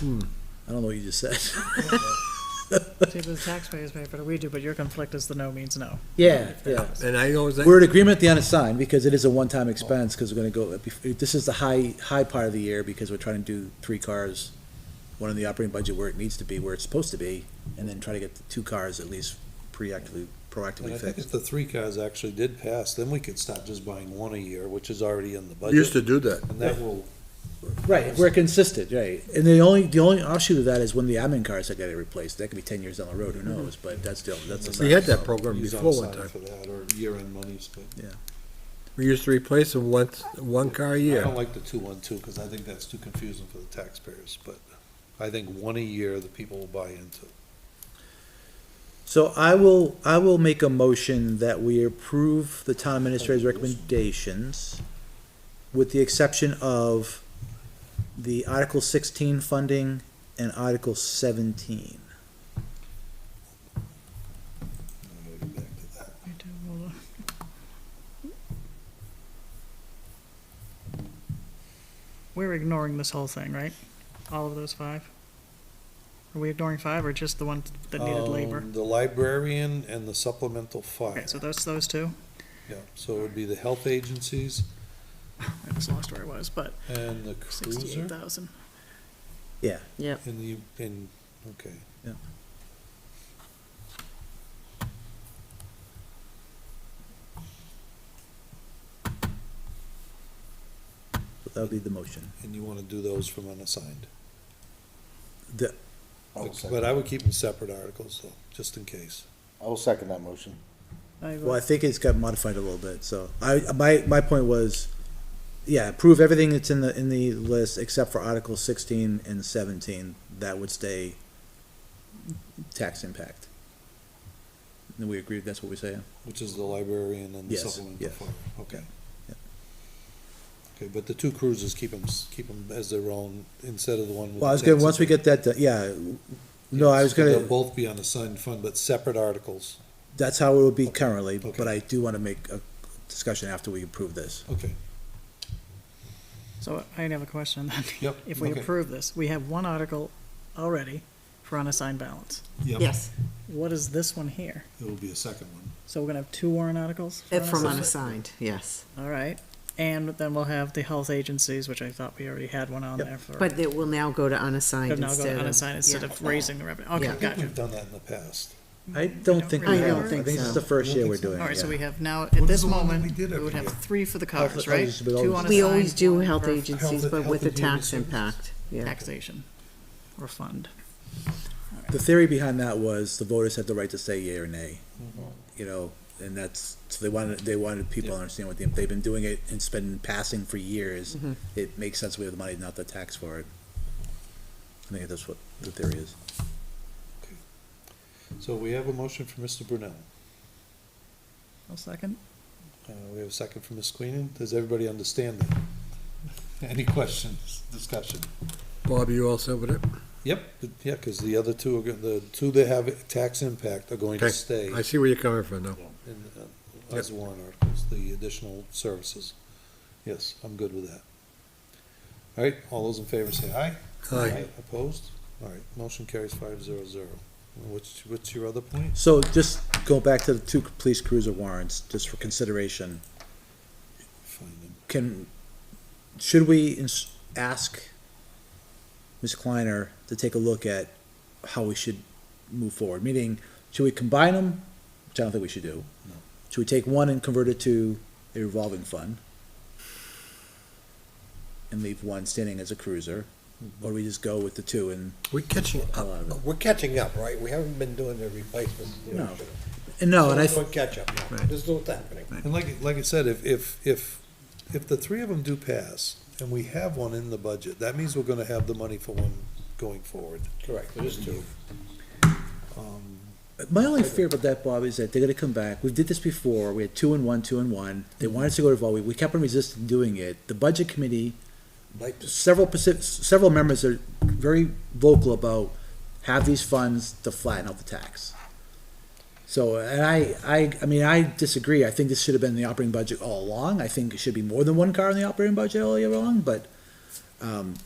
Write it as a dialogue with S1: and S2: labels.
S1: I don't know what you just said.
S2: See, the taxpayers pay for it, we do, but your conflict is the no means no.
S1: Yeah, yeah.
S3: And I know that,
S1: We're in agreement at the unassigned, because it is a one-time expense, because we're gonna go, uh, this is the high, high part of the year, because we're trying to do three cars, one in the operating budget where it needs to be, where it's supposed to be, and then try to get the two cars at least preactively,
S4: And I
S1: proactively
S4: think if
S1: fixed.
S4: the three cars actually did pass, then we could start just buying one a year, which is already in the
S3: we used
S4: budget.
S3: to do that.
S4: And that will,
S1: Right, if we're consistent, right, and the only, the only offshoot of that is when the admin cars that get replaced, that could be ten years down the road, who knows, but that's still, that's. a
S3: We had
S1: side.
S3: that program
S4: use
S3: before one
S4: outside
S3: time.
S4: for that, or year-end monies, but
S3: We used to replace them once, one car a
S4: I
S3: year.
S4: don't like the two-one-two, because I think that's too confusing for the taxpayers, but I think one a year the people will buy into.
S1: So I will, I will make a motion that we approve the town administrator's recommendations with the exception of the Article sixteen funding and Article seventeen.
S4: I'm gonna go back to that.
S2: I do, well, We're ignoring this whole thing, right? All of those five? Are we ignoring five or just the one that needed labor?
S4: Um, The librarian and the supplemental
S2: Okay,
S4: fire,
S2: so those, those two,
S4: yeah, so it would be the health agencies
S2: I just lost where I was, but
S4: and the
S2: sixty-eight
S4: cruiser
S2: thousand.
S5: Yep.
S4: and the, and, okay.
S1: Yeah. That would be the motion.
S4: And you wanna do those from unassigned?
S1: The-
S3: Oh,
S6: I'll
S4: But
S6: second,
S4: I would keep them separate articles though, just in case.
S6: I'll second that motion.
S2: I
S1: Well, I
S2: would-
S1: think it's got modified a little bit, so I, my, my point was, yeah, approve everything that's in the, in the list except for Article sixteen and seventeen, that would stay tax impact. And we agreed, that's what we say.
S4: Which is the librarian and the
S1: Yes,
S4: supplemental
S1: yes.
S4: fire, okay.
S1: Yeah.
S4: Okay, but the two cruisers, keep them, keep them as their own instead of the one with.
S1: Well, I was
S4: the
S1: gonna, once we
S4: taxi.
S1: get that, done- yeah, no, I was
S4: So
S1: gonna,
S4: They'll both be on assigned fund, but separate articles,
S1: that's how it would be currently, but
S4: Okay.
S1: I do wanna make a discussion after we approve this.
S4: okay.
S2: So I have a question then.
S4: Yep,
S2: If we
S4: okay.
S2: approve this, we have one article already for unassigned balance.
S5: Yes,
S2: What is this one here?
S4: It will be a second one.
S2: So we're gonna have two warrant articles? for
S5: if from
S2: unassigned?
S5: unassigned, yes.
S2: All right, and then we'll have the health agencies, which I thought we already had one on there for.
S5: But it will now go to unassigned
S2: Could
S5: instead
S2: now
S5: of.
S2: go to unassigned instead
S5: yeah.
S2: of raising the revenue. Okay,
S5: Yeah.
S4: I think
S2: gotcha.
S4: we've done that in the past.
S1: I don't think
S2: really
S1: we
S5: I
S1: have,
S5: don't
S1: I
S5: think
S1: think this
S5: so.
S1: is the first year we're
S2: All
S1: doing it,
S2: right, so
S1: yeah.
S2: we have now, at
S4: What
S2: this
S4: is the one that
S2: moment,
S4: we did
S2: we
S4: every
S2: would have
S4: year?
S2: three for the
S1: Health-
S2: cars, right?
S1: health- we
S2: Two
S1: always-
S2: unassigned.
S5: We always do
S2: one
S5: health
S2: for
S5: agencies,
S4: Health-
S5: but with
S4: Health
S5: a
S4: and Human
S5: tax
S4: Services.
S5: impact, yeah.
S2: Taxation or fund.
S1: The theory behind that was the voters had the right to say yea or nay, you know, and that's, so they wanted, they wanted people to understand what they, they've been doing it and it's been passing for years.
S5: Mm-hmm.
S1: It makes sense we have the money, not the tax for it. I think that's what the theory is.
S4: So we have a motion for Mr. Brunel.
S2: One second.
S4: Uh, we have a second from Ms. Queenan. Does everybody understand that? Any questions, discussion?
S3: Bob, you all set with it?
S4: Yep, th- yeah, because the other two are, go- the two that have tax impact are going
S3: Okay.
S4: to stay
S3: I see where you're coming from now.
S4: in, uh, as warrant articles, the additional services. Yes, I'm good with that. All right, all those in favor say aye.
S3: Hi.
S4: Opposed? All right, motion carries five zero zero. What's, what's your other point?
S1: So just go back to the two police cruiser warrants, just for consideration.
S4: Fine,
S1: Can, should we ins- ask Ms. Kleiner to take a look at how we should move forward? Meaning, should we combine them, which I don't think we should do?
S4: No.
S1: Should we take one and convert it to a revolving fund? And leave one standing as a cruiser, or we just go with the two and,
S3: We're catching up,
S1: lot of it.
S3: we're catching up, right? We haven't been doing the replacements.
S1: No. and no, and I,
S3: We're doing catch-up now.
S1: Right.
S3: This is what's happening.
S4: And like, like I said, if, if, if, if the three of them do pass, and we have one in the budget, that means we're gonna have the money for one going forward.
S3: Correct, there's two.
S4: Um,
S1: my only fear about that, Bob, is that they're gonna come back, we did this before, we had two and one, two and one, they wanted us to go to revolving, we kept on resisting doing it, the budget committee
S3: Like this.
S1: several perci- several members are very vocal about have these funds to flatten out the tax. So, and I, I, I mean, I disagree. I think this should have been the operating budget all along. I think it should be more than one car in the operating budget all year long, but, um,